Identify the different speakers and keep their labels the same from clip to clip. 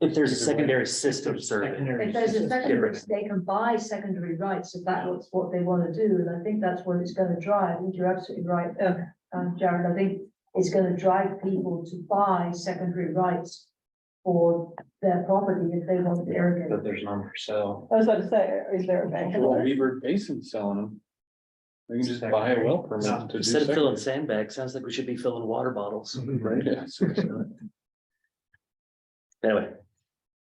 Speaker 1: If there's a secondary system service,
Speaker 2: If
Speaker 3: Secondary
Speaker 2: there's a
Speaker 3: system.
Speaker 2: secondary, they can buy secondary rights if that's what they want to do, and I think that's what it's going to drive, and you're absolutely right, uh, um, Jared, I think it's going to drive people to buy secondary rights for their property if they want to irrigate.
Speaker 3: But there's none for sale.
Speaker 4: I was about to say, is there a bank?
Speaker 5: Well, Weaver Basin selling them. They can just buy a well permit to do.
Speaker 1: instead of filling
Speaker 5: second.
Speaker 1: sandbags, sounds like we should be filling water bottles.
Speaker 3: Right.
Speaker 5: Yeah, seriously.
Speaker 1: Anyway,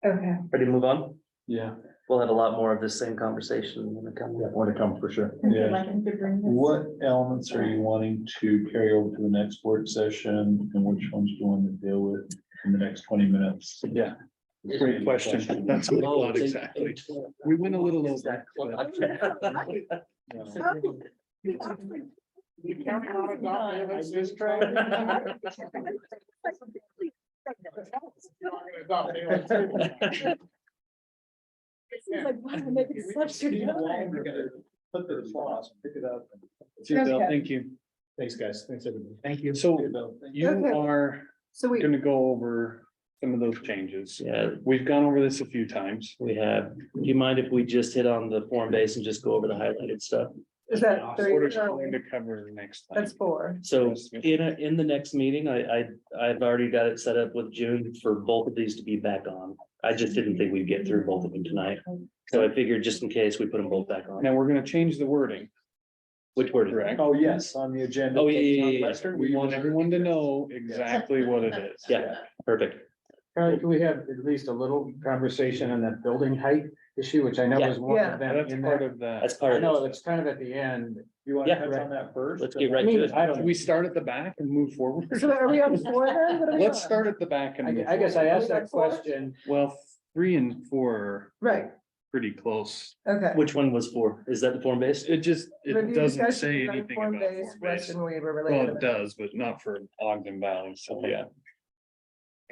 Speaker 4: Okay,
Speaker 1: ready to move on?
Speaker 5: Yeah,
Speaker 1: We'll have a lot more of this same conversation in the coming.
Speaker 3: Want to come for sure.
Speaker 5: yeah.
Speaker 4: What?
Speaker 5: What elements are you wanting to carry over to the next work session and which ones do you want to deal with in the next twenty minutes?
Speaker 6: Yeah, great question. That's what I
Speaker 1: Oh,
Speaker 6: thought
Speaker 1: it's eight-
Speaker 6: exactly.
Speaker 1: eight twelve.
Speaker 6: We went a little
Speaker 1: Is that
Speaker 6: over.
Speaker 1: close?
Speaker 5: No.
Speaker 3: Put the sauce, pick it up.
Speaker 6: See, Bill, Thank you.
Speaker 3: Thanks, guys. Thanks, everybody.
Speaker 6: Thank you. So you are
Speaker 4: So we,
Speaker 6: gonna go over some of those changes.
Speaker 1: Yeah,
Speaker 6: We've gone over this a few times.
Speaker 1: we have. Do you mind if we just hit on the form base and just go over the highlighted stuff?
Speaker 4: is that
Speaker 6: What is
Speaker 4: three?
Speaker 6: going to cover next time?
Speaker 4: That's four.
Speaker 1: So in a, in the next meeting, I, I, I've already got it set up with June for both of these to be back on. I just didn't think we'd get through both of them tonight. So I figured just in case we put them both back on.
Speaker 6: Now, we're gonna change the wording,
Speaker 1: Which word? is it?
Speaker 6: correct?
Speaker 3: Oh, yes, on the agenda.
Speaker 1: Oh, yeah, yeah, yeah, yeah.
Speaker 6: We want everyone to know exactly what it is.
Speaker 1: Yeah, perfect.
Speaker 3: Charlie, Uh, can we have at least a little conversation on that building height issue, which I know
Speaker 1: Yeah.
Speaker 3: was one of them
Speaker 6: That's
Speaker 3: in
Speaker 6: part
Speaker 3: there?
Speaker 6: of that.
Speaker 1: That's part
Speaker 3: I
Speaker 1: of
Speaker 3: know,
Speaker 1: it.
Speaker 3: it's kind of at the end. You
Speaker 1: wanna Yeah.
Speaker 3: touch on that first?
Speaker 1: Let's get right to it.
Speaker 3: I
Speaker 6: Do
Speaker 3: don't,
Speaker 6: we start at the back and move forward?
Speaker 4: So are we on four then? What are we
Speaker 6: Let's
Speaker 4: on?
Speaker 6: start at the back and.
Speaker 3: I,
Speaker 6: move
Speaker 3: I guess I
Speaker 6: forward.
Speaker 3: asked that question.
Speaker 6: Well, three and four are
Speaker 4: Right,
Speaker 6: pretty close.
Speaker 4: okay.
Speaker 1: Which one was for? Is that the form base?
Speaker 6: It just, it
Speaker 4: Review
Speaker 6: doesn't
Speaker 4: discussion
Speaker 6: say
Speaker 4: regarding
Speaker 6: anything about
Speaker 4: form-based
Speaker 6: form base.
Speaker 4: Western waiver
Speaker 6: Well,
Speaker 4: related.
Speaker 6: it does, but not for Ogden Valley, so yeah.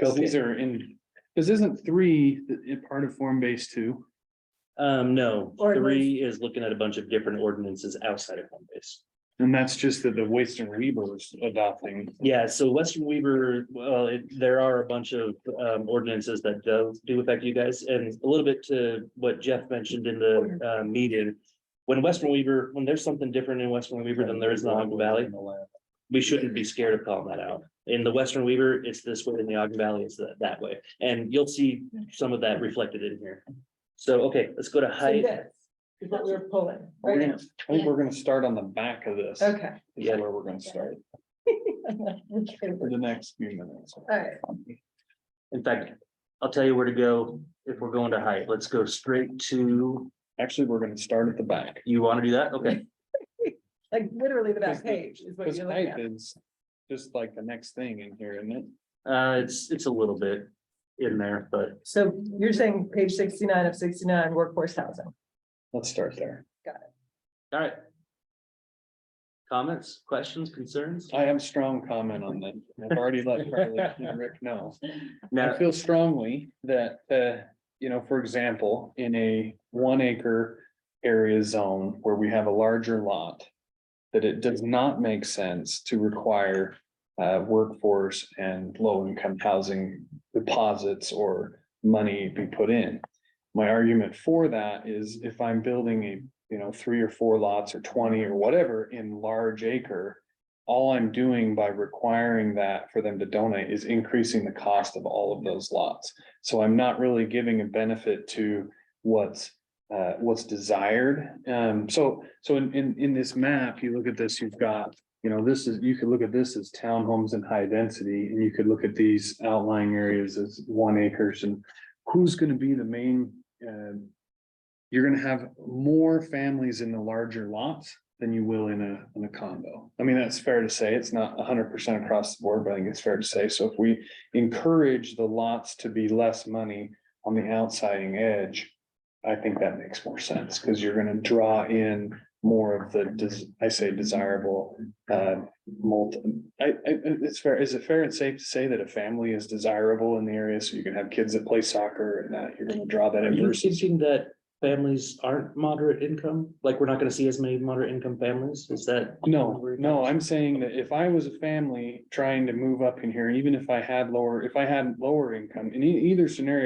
Speaker 6: Cause these are in, cause isn't three i- i- part of form base two?
Speaker 1: Um, no,
Speaker 4: Ordinance.
Speaker 1: three is looking at a bunch of different ordinances outside of form base.
Speaker 6: And that's just that the Western Weaver is adopting.
Speaker 1: Yeah, so Western Weaver, well, it- there are a bunch of um ordinances that do do affect you guys and a little bit to what Jeff mentioned in the uh meeting. When Western Weaver, when there's something different in Western Weaver than there is in the Ogden Valley, we shouldn't be scared of calling that out. In the Western Weaver, it's this way, in the Ogden Valley, it's that that way, and you'll see some of that reflected in here. So, okay, let's go to
Speaker 4: So
Speaker 1: height.
Speaker 4: this Is what we're pulling,
Speaker 6: We're
Speaker 4: right?
Speaker 6: gonna- I think we're gonna start on the back of this.
Speaker 4: Okay.
Speaker 6: Is
Speaker 1: Yeah.
Speaker 6: where we're gonna start for
Speaker 4: All
Speaker 6: the next few minutes.
Speaker 4: right,
Speaker 1: In fact, I'll tell you where to go if we're going to height. Let's go straight to,
Speaker 6: Actually, we're gonna start at the back.
Speaker 1: you want to do that? Okay.
Speaker 4: like literally the
Speaker 6: Because
Speaker 4: back
Speaker 6: the-
Speaker 4: page is what
Speaker 6: Cause
Speaker 4: you're looking
Speaker 6: height
Speaker 4: at.
Speaker 6: is just like the next thing in here, isn't it?
Speaker 1: Uh, it's, it's a little bit in there, but
Speaker 4: So you're saying page sixty-nine of sixty-nine, workforce housing.
Speaker 6: Let's start there.
Speaker 1: all right. Comments, questions, concerns?
Speaker 6: I have strong comment on that. I've already let Carly and Rick know. I
Speaker 1: Now,
Speaker 6: feel strongly that, uh, you know, for example, in a one acre area zone where we have a larger lot. That it does not make sense to require, uh, workforce and low income housing deposits or money be put in. My argument for that is if I'm building a, you know, three or four lots or twenty or whatever in large acre. All I'm doing by requiring that for them to donate is increasing the cost of all of those lots. So I'm not really giving a benefit to what's uh what's desired. Um so so in in in this map, you look at this, you've got, you know, this is, you could look at this as townhomes and high density, and you could look at these outlying areas as one acres and who's gonna be the main um you're gonna have more families in the larger lots than you will in a, in a condo. I mean, that's fair to say. It's not hundred percent across the board, but I think it's fair to say. So if we encourage the lots to be less money on the outsiding edge, I think that makes more sense because you're gonna draw in more of the, des- I say desirable, uh, multi, I, I, it's fair. Is it fair and safe to say that a family is desirable in the area? So you can have kids that play soccer and that you're gonna draw that
Speaker 1: are
Speaker 6: in
Speaker 1: you
Speaker 6: versus.
Speaker 1: thinking that families aren't moderate income? Like, we're not gonna see as many moderate income families? Is that?
Speaker 6: No, no, I'm saying that if I was a family trying to move up in here, even if I had lower, if I had lower income, in e- either scenario.